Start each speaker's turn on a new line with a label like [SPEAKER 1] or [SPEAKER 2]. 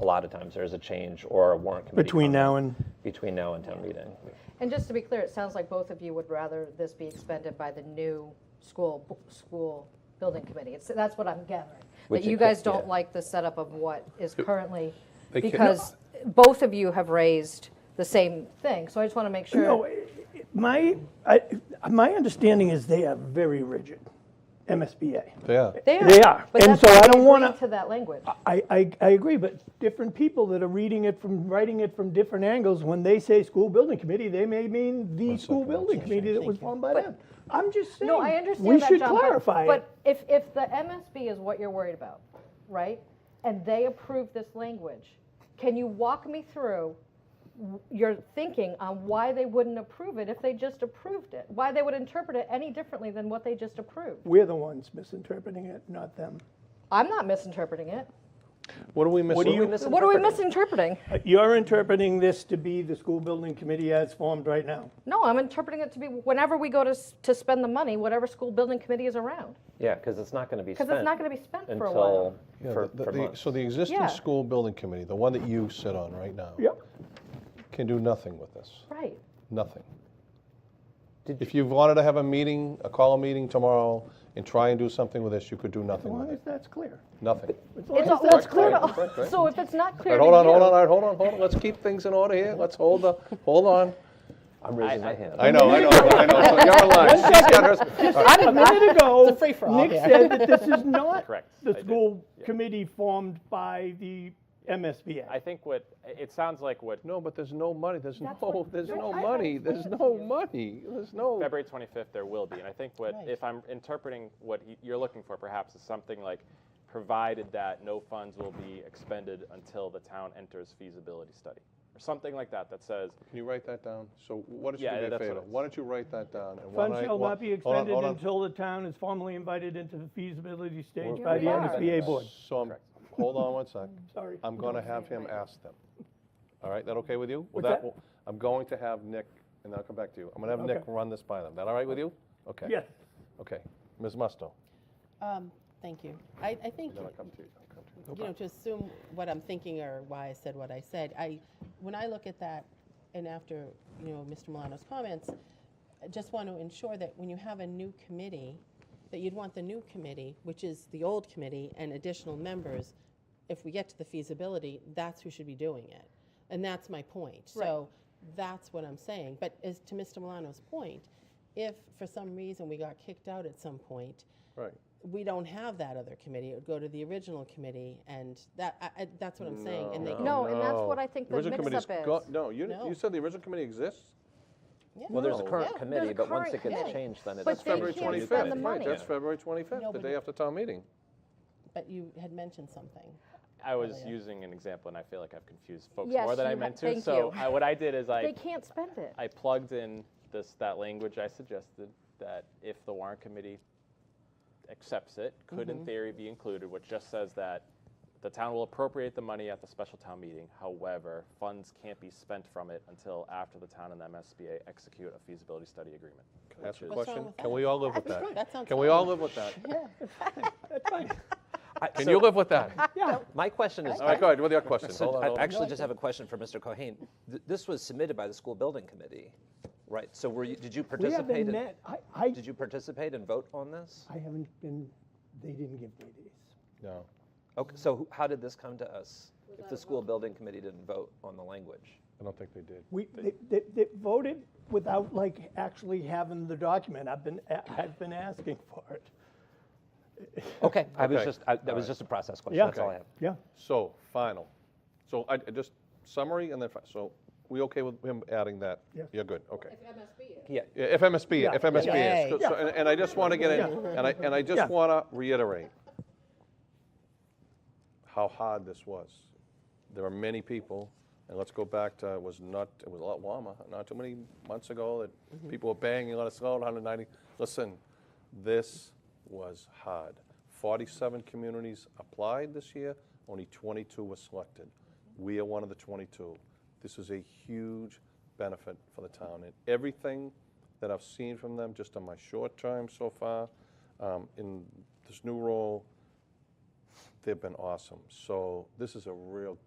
[SPEAKER 1] a lot of times there's a change or a warrant committee.
[SPEAKER 2] Between
[SPEAKER 1] comment
[SPEAKER 2] now and,
[SPEAKER 1] Between now and town meeting.
[SPEAKER 3] And just to be clear, it sounds like both of you would rather this be expended by the new school, b- school building committee. It's, that's what I'm gathering. That
[SPEAKER 1] Which
[SPEAKER 3] you
[SPEAKER 1] it
[SPEAKER 3] guys
[SPEAKER 1] could- yeah.
[SPEAKER 3] don't like the setup of what is currently,
[SPEAKER 4] They can't-
[SPEAKER 3] because both of you have raised the same thing. So I just want to make
[SPEAKER 2] no,
[SPEAKER 3] sure.
[SPEAKER 2] my, I, my understanding is they are very rigid, MSBA.
[SPEAKER 4] Yeah.
[SPEAKER 3] They
[SPEAKER 2] They are.
[SPEAKER 3] But
[SPEAKER 2] And
[SPEAKER 3] that's
[SPEAKER 2] so
[SPEAKER 3] why
[SPEAKER 2] I
[SPEAKER 3] we
[SPEAKER 2] don't wanna-
[SPEAKER 3] agreed To that language.
[SPEAKER 2] I, I, I agree, but different people that are reading it from, writing it from different angles, when they say school building committee, they may mean the school building committee that was formed by them. I'm just saying.
[SPEAKER 3] No, I understand
[SPEAKER 2] We
[SPEAKER 3] that,
[SPEAKER 2] should
[SPEAKER 3] John, but-
[SPEAKER 2] clarify it.
[SPEAKER 3] But if, if the MSB is what you're worried about, right, and they approve this language, can you walk me through w- your thinking on why they wouldn't approve it if they just approved it? Why they would interpret it any differently than what they just approved?
[SPEAKER 2] We're the ones misinterpreting it, not them.
[SPEAKER 3] I'm not misinterpreting it.
[SPEAKER 4] What are we missing?
[SPEAKER 2] What do you-
[SPEAKER 3] What are we misinterpreting?
[SPEAKER 2] Uh, You're interpreting this to be the school building committee as formed right now.
[SPEAKER 3] No, I'm interpreting it to be whenever we go to, s- to spend the money, whatever school building committee is around.
[SPEAKER 1] Yeah, because it's not going to be spent.
[SPEAKER 3] Because it's not going to be spent for a
[SPEAKER 1] Until,
[SPEAKER 3] while.
[SPEAKER 4] Yeah,
[SPEAKER 1] for,
[SPEAKER 4] the-
[SPEAKER 1] for
[SPEAKER 4] the-
[SPEAKER 1] months.
[SPEAKER 4] So the existing
[SPEAKER 3] Yeah.
[SPEAKER 4] school building committee, the one that you sit on right now,
[SPEAKER 2] Yep.
[SPEAKER 4] can do nothing with this,
[SPEAKER 3] Right.
[SPEAKER 4] nothing.
[SPEAKER 1] Did
[SPEAKER 4] If you wanted to have a meeting, a call meeting tomorrow and try and do something with this, you could do
[SPEAKER 2] As
[SPEAKER 4] nothing
[SPEAKER 2] long
[SPEAKER 4] with
[SPEAKER 2] as
[SPEAKER 4] it,
[SPEAKER 2] that's clear.
[SPEAKER 4] nothing.
[SPEAKER 2] As
[SPEAKER 3] It's,
[SPEAKER 2] long as
[SPEAKER 3] all- it's
[SPEAKER 2] that's
[SPEAKER 3] clear
[SPEAKER 2] clear.
[SPEAKER 3] to, all- so if it's not
[SPEAKER 4] All
[SPEAKER 3] clear
[SPEAKER 4] right,
[SPEAKER 3] to
[SPEAKER 4] hold on,
[SPEAKER 3] you-
[SPEAKER 4] hold on, all right, hold on, hold on, let's keep things in order here, let's hold the, hold on.
[SPEAKER 1] I'm raising my hand.
[SPEAKER 4] I know, I know, I know, so you're in line, she's got hers. All right,
[SPEAKER 2] A minute ago,
[SPEAKER 5] It's a free-for-all
[SPEAKER 2] Nick
[SPEAKER 5] here.
[SPEAKER 2] said that this is not
[SPEAKER 6] Correct, I
[SPEAKER 2] the
[SPEAKER 6] did,
[SPEAKER 2] school committee formed by the
[SPEAKER 6] I
[SPEAKER 2] MSBA.
[SPEAKER 6] think what, it sounds like what,
[SPEAKER 4] No, but there's no money, there's no,
[SPEAKER 3] what-
[SPEAKER 4] there's
[SPEAKER 3] no,
[SPEAKER 4] no
[SPEAKER 3] I- I
[SPEAKER 4] money,
[SPEAKER 3] explained
[SPEAKER 4] there's
[SPEAKER 3] it to
[SPEAKER 4] no
[SPEAKER 3] you.
[SPEAKER 4] money, there's no.
[SPEAKER 6] February 25th, there will be. And I think what, if I'm interpreting what y- you're looking for perhaps is something like, provided that no funds will be expended until the town enters feasibility study, or something like that, that says,
[SPEAKER 4] Can you write that down? So why don't you
[SPEAKER 6] Yeah,
[SPEAKER 4] do me a
[SPEAKER 6] that's what
[SPEAKER 4] favor?
[SPEAKER 6] it is.
[SPEAKER 4] Why don't you write that down? and why
[SPEAKER 2] Funds
[SPEAKER 4] don't I-
[SPEAKER 2] shall
[SPEAKER 4] why-
[SPEAKER 2] not be
[SPEAKER 4] hold on,
[SPEAKER 2] expended
[SPEAKER 4] hold on.
[SPEAKER 2] until the town is formally invited into the feasibility stage
[SPEAKER 3] Here
[SPEAKER 2] by the
[SPEAKER 3] we are.
[SPEAKER 2] MSBA board.
[SPEAKER 4] So I'm, hold on one sec.
[SPEAKER 2] Sorry.
[SPEAKER 4] I'm going to have him ask them. All right, that okay with you? Well,
[SPEAKER 2] What's that?
[SPEAKER 4] will- I'm going to have Nick, and I'll come back to you. I'm going to have Nick
[SPEAKER 2] Okay.
[SPEAKER 4] run this by them. That all right with you? Okay.
[SPEAKER 2] Yes.
[SPEAKER 4] Okay. Ms. Musto,
[SPEAKER 5] Um, Thank you. I, I think,
[SPEAKER 4] then I'll come to you. I'll come to you.
[SPEAKER 5] you know, to assume what I'm thinking or why I said what I said, I, when I look at that, and after, you know, Mr. Milano's comments, I just want to ensure that when you have a new committee, that you'd want the new committee, which is the old committee and additional members, if we get to the feasibility, that's who should be doing it. And that's my point. So that's what I'm saying. But as to Mr. Milano's point, if for some reason we got kicked out at some point,
[SPEAKER 4] Right.
[SPEAKER 5] we don't have that other committee. It would go to the original committee, and that, I, I- that's what I'm saying. And they,
[SPEAKER 3] No, and that's what I think the
[SPEAKER 4] Oh, original committee's
[SPEAKER 3] mix-up is.
[SPEAKER 4] go- No, you,
[SPEAKER 5] No.
[SPEAKER 4] you said the original committee exists?
[SPEAKER 5] Yeah.
[SPEAKER 1] Well, there's a
[SPEAKER 4] No.
[SPEAKER 1] current
[SPEAKER 5] Yeah,
[SPEAKER 1] committee,
[SPEAKER 3] there's a
[SPEAKER 1] but once
[SPEAKER 3] current
[SPEAKER 1] it gets
[SPEAKER 3] committee.
[SPEAKER 1] changed, then it
[SPEAKER 3] But
[SPEAKER 1] is.
[SPEAKER 3] they
[SPEAKER 4] February
[SPEAKER 3] can't spend the
[SPEAKER 4] 25th. Right,
[SPEAKER 3] money.
[SPEAKER 4] that's February 25th, the
[SPEAKER 5] but
[SPEAKER 4] day
[SPEAKER 5] you-
[SPEAKER 4] after town meeting.
[SPEAKER 5] But you had mentioned something.
[SPEAKER 6] I was using an example and I feel like I've confused folks
[SPEAKER 3] Yes,
[SPEAKER 6] more than I
[SPEAKER 3] you ha-
[SPEAKER 6] meant to.
[SPEAKER 3] thank
[SPEAKER 6] So
[SPEAKER 3] you.
[SPEAKER 6] I- what I did is
[SPEAKER 3] They
[SPEAKER 6] I,
[SPEAKER 3] can't spend it.
[SPEAKER 6] I plugged in this, that language I suggested, that if the warrant committee accepts it, could in theory be included, which just says that the town will appropriate the money at the special town meeting. However, funds can't be spent from it until after the town and MSBA execute a feasibility study agreement.
[SPEAKER 4] Can I Ask a
[SPEAKER 6] which is-
[SPEAKER 5] What's wrong
[SPEAKER 4] question?
[SPEAKER 5] with
[SPEAKER 4] Can
[SPEAKER 5] that?
[SPEAKER 4] we all live with
[SPEAKER 5] That
[SPEAKER 4] that?
[SPEAKER 5] sounds
[SPEAKER 4] Can we all live with that?
[SPEAKER 7] I-
[SPEAKER 4] Can
[SPEAKER 7] so
[SPEAKER 4] you live with that?
[SPEAKER 7] My question is,
[SPEAKER 4] All right, go ahead, with your question. Hold
[SPEAKER 7] so
[SPEAKER 4] on,
[SPEAKER 7] I
[SPEAKER 4] hold on.
[SPEAKER 7] actually just have a question for Mr. Cohen. Th- This was submitted by the school building committee, right? So were you, did you
[SPEAKER 2] We haven't
[SPEAKER 7] participate? in-
[SPEAKER 2] met, I, I,
[SPEAKER 7] Did you participate and vote on this?
[SPEAKER 2] I haven't been, they didn't give me these.
[SPEAKER 4] No.
[SPEAKER 7] Okay, so who- how did this come to us? If the school building committee didn't vote on the language?
[SPEAKER 4] I don't think they did.
[SPEAKER 2] We, they, they, they voted without like actually having the document. I've been, a- I've been asking for it.
[SPEAKER 7] Okay, I was
[SPEAKER 4] Okay.
[SPEAKER 7] just, I- that was just a process question, that's all I have.
[SPEAKER 2] Yeah.
[SPEAKER 4] So, final. So I, I just summary and then, fi- so we okay with him adding that?
[SPEAKER 2] Yes.
[SPEAKER 4] You're good, okay.
[SPEAKER 3] MSB
[SPEAKER 7] Yeah,
[SPEAKER 4] Yeah, FMSB,
[SPEAKER 2] Yeah.
[SPEAKER 4] FMSB is.
[SPEAKER 5] Yay.
[SPEAKER 4] So- so- And and I just want to get in, and I, and I
[SPEAKER 2] Yeah.
[SPEAKER 4] just want to reiterate how hard this was. There are many people, and let's go back to, it was not, it was a lot warmer, not too many months ago, that people were banging, let us go, 190. Listen, this was hard. 47 communities applied this year, only 22 were selected. We are one of the 22. This is a huge benefit for the town, and everything that I've seen from them just on my short term so far um, in this new role, they've been awesome. So this is a real